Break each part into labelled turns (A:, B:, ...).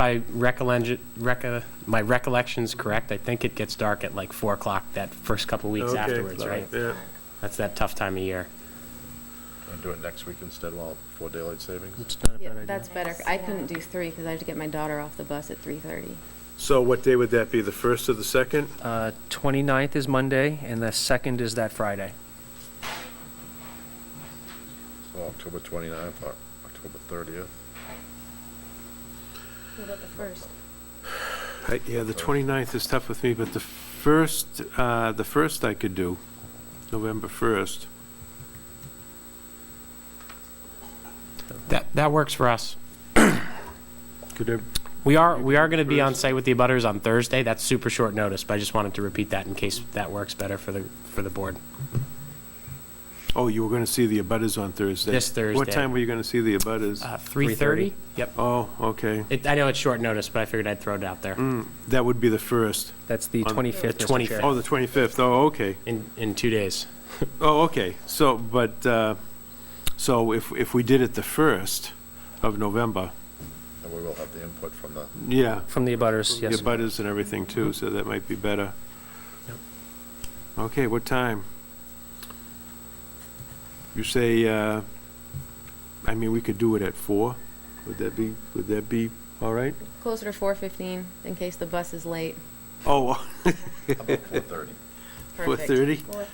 A: my recollection, reco- my recollection's correct, I think it gets dark at like 4 o'clock that first couple weeks
B: Okay,
A: afterwards, right?
B: Yeah,
A: That's that tough time of year.
C: And do it next week instead while, before daylight savings?
D: It's not a
E: Yeah,
D: bad idea.
E: that's better. I couldn't do three because I have to get my daughter off the bus at 3:30.
B: so what day would that be, the first or the second?
D: Uh, 29th is Monday, and the 2nd is that Friday.
C: So October 29th, Oc- October 30th.
E: What about the first?
B: I- Yeah, the 29th is tough with me, but the first, uh, the first I could do, November 1st.
A: That, that works for us.
B: Could I,
A: We are, we are going to be on site with the abutters on Thursday, that's super short notice, but I just wanted to repeat that in case that works better for the, for the board.
B: oh, you were going to see the abutters on Thursday?
A: This
B: What
A: Thursday.
B: time were you going to see the abutters?
A: Uh, 3:30? Yep.
B: Oh, okay.
A: It, I know it's short notice, but I figured I'd throw it out there
B: Mm, That would be the first.
D: That's the
B: On-
D: 25th,
A: The
D: Mr. Chair.
B: Oh, the 25th, oh, okay.
A: in, in two days.
B: Oh, okay, so, but, uh, so if, if we did it the 1st of November,
C: And we will have the input from the,
B: yeah,
D: From the abutters,
B: the
D: yes. Mm-hmm.
B: butters and everything too, so that might be better.
A: Yep.
B: Okay, what time? You say, uh, I mean, we could do it at four, would that be, would that be all right?
E: Closer to 4:15 in case the bus is late.
B: Oh,
C: how about 4:30?
E: Perfect.
B: 4:30?
E: 4:30.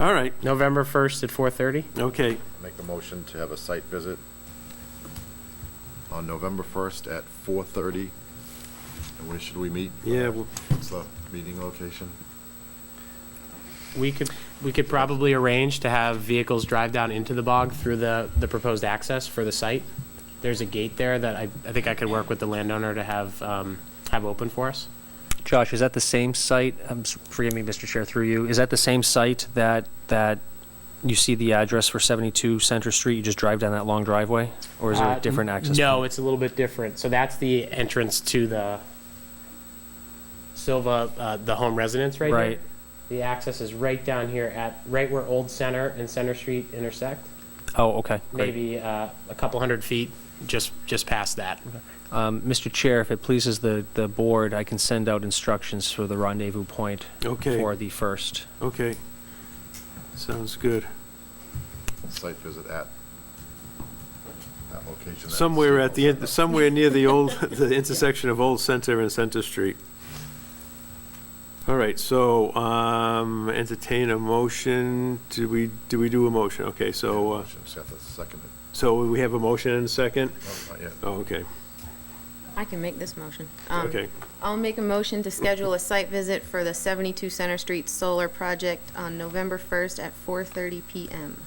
B: all right,
A: November 1st at 4:30?
B: okay,
C: Make a motion to have a site visit on November 1st at 4:30. And where should we meet?
B: yeah, well,
C: What's the meeting location?
A: We could, we could probably arrange to have vehicles drive down into the bog through the, the proposed access for the site. There's a gate there that I, I think I could work with the landowner to have, um, have open for us.
D: Josh, is that the same site, um, s- forgive me, Mr. Chair, through you, is that the same site that, that you see the address for 72 Center Street, you just drive down that long driveway? Or is there
A: Uh,
D: a different access?
A: No,
D: point?
A: it's a little bit different. So that's the entrance to the Silva, uh, the home residence right here.
D: Right,
A: The access is right down here at, right where Old Center and Center Street intersect,
D: oh, okay, great.
A: maybe, uh, a couple hundred feet, just, just past that.
D: Um, Mr. Chair, if it pleases the, the board, I can send out instructions for the rendezvous point
B: okay,
D: for the first.
B: okay. Sounds good.
C: Site visit at that location. that-
B: Somewhere at the, in- somewhere near the old, the intersection of Old Center and Center Street. All right, so um, entertain a motion, do we, do we do a motion? Okay, so, uh,
C: Motion, Seth, a second. it.
B: so we have a motion and a second?
C: No, not yet.
B: Oh, okay,
E: I can make this motion. Um,
B: okay.
E: I'll make a motion to schedule a site visit for the 72 Center Street Solar Project on November 1st at 4:30 PM.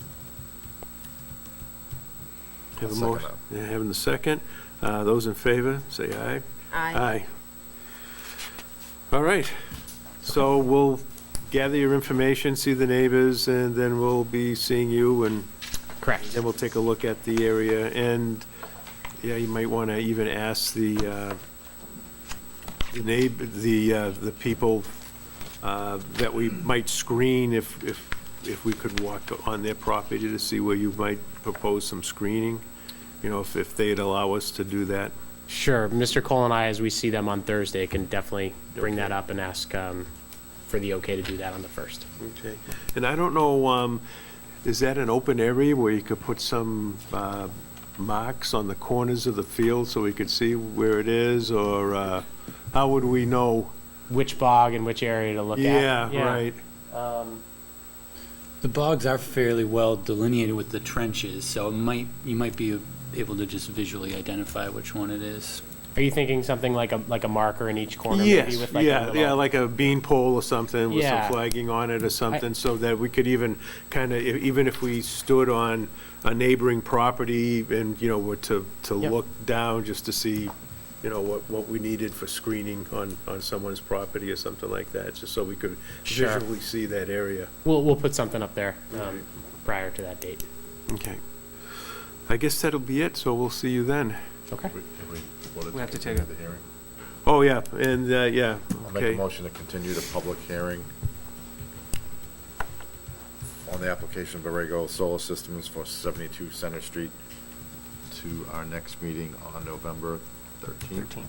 B: Have a
C: I'll second
B: motion, yeah, having the second. Uh, Those in favor, say aye.
E: Aye.
B: All right, so we'll gather your information, see the neighbors, and then we'll be seeing you and
A: Correct.
B: Then we'll take a look at the area, and, yeah, you might want to even ask the, uh, the neighbor, the, uh, the people uh, that we might screen if, if, if we could walk on their property to see where you might propose some screening, you know, if, if they'd allow us to do that.
A: Sure. Mr. Cole and I, as we see them on Thursday, can definitely bring that
B: Okay.
A: up and ask um, for the okay to do that on the first.
B: Okay. And I don't know, um, is that an open area where you could put some uh, marks on the corners of the field so we could see where it is, or uh, how would we know?
A: Which bog and which area to look at? Um,
B: Yeah, right.
F: The bogs are fairly well delineated with the trenches, so it might, you might be able to just visually identify which one it is.
A: Are you thinking something like a, like a marker in each corner? maybe
B: Yes,
A: with like a
B: yeah,
A: little-
B: yeah, like a bean pole or something with some
A: Yeah.
B: flagging on it or something, so that we could even kind of, even if we stood on a neighboring property and, you know, were to, to
A: Yep.
B: look down just to see, you know, what, what we needed for screening on, on someone's property or something like that, just so we could
A: Sure.
B: visually see that area.
A: We'll, we'll put something up there um,
B: Right.
A: prior to that date.
B: Okay. I guess that'll be it, so we'll see you then.
A: Okay.
C: We- if we voted
D: We have to take
C: continue
D: a-
C: the hearing.
B: Oh, yeah, and, uh, yeah,
C: I'll make a
B: okay.
C: motion to continue the public hearing on the application of Borrego Solar Systems for 72 Center Street to our next meeting on November Thirteen.